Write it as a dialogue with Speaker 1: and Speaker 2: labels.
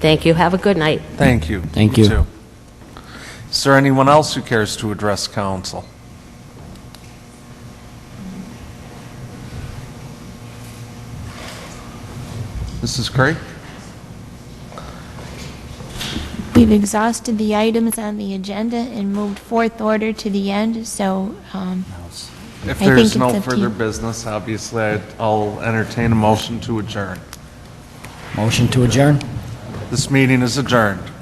Speaker 1: Thank you. Have a good night.
Speaker 2: Thank you.
Speaker 3: Thank you.
Speaker 2: too. Is there anyone else who cares to address council? Mrs. Craig?
Speaker 4: We've exhausted the items on the agenda and moved fourth order to the end, so um,
Speaker 2: If
Speaker 4: I think
Speaker 2: there's
Speaker 4: it's
Speaker 2: no
Speaker 4: up to
Speaker 2: further
Speaker 4: you.
Speaker 2: business, obviously, I'd- I'll entertain a motion to adjourn.
Speaker 3: Motion to adjourn?
Speaker 2: This meeting is adjourned.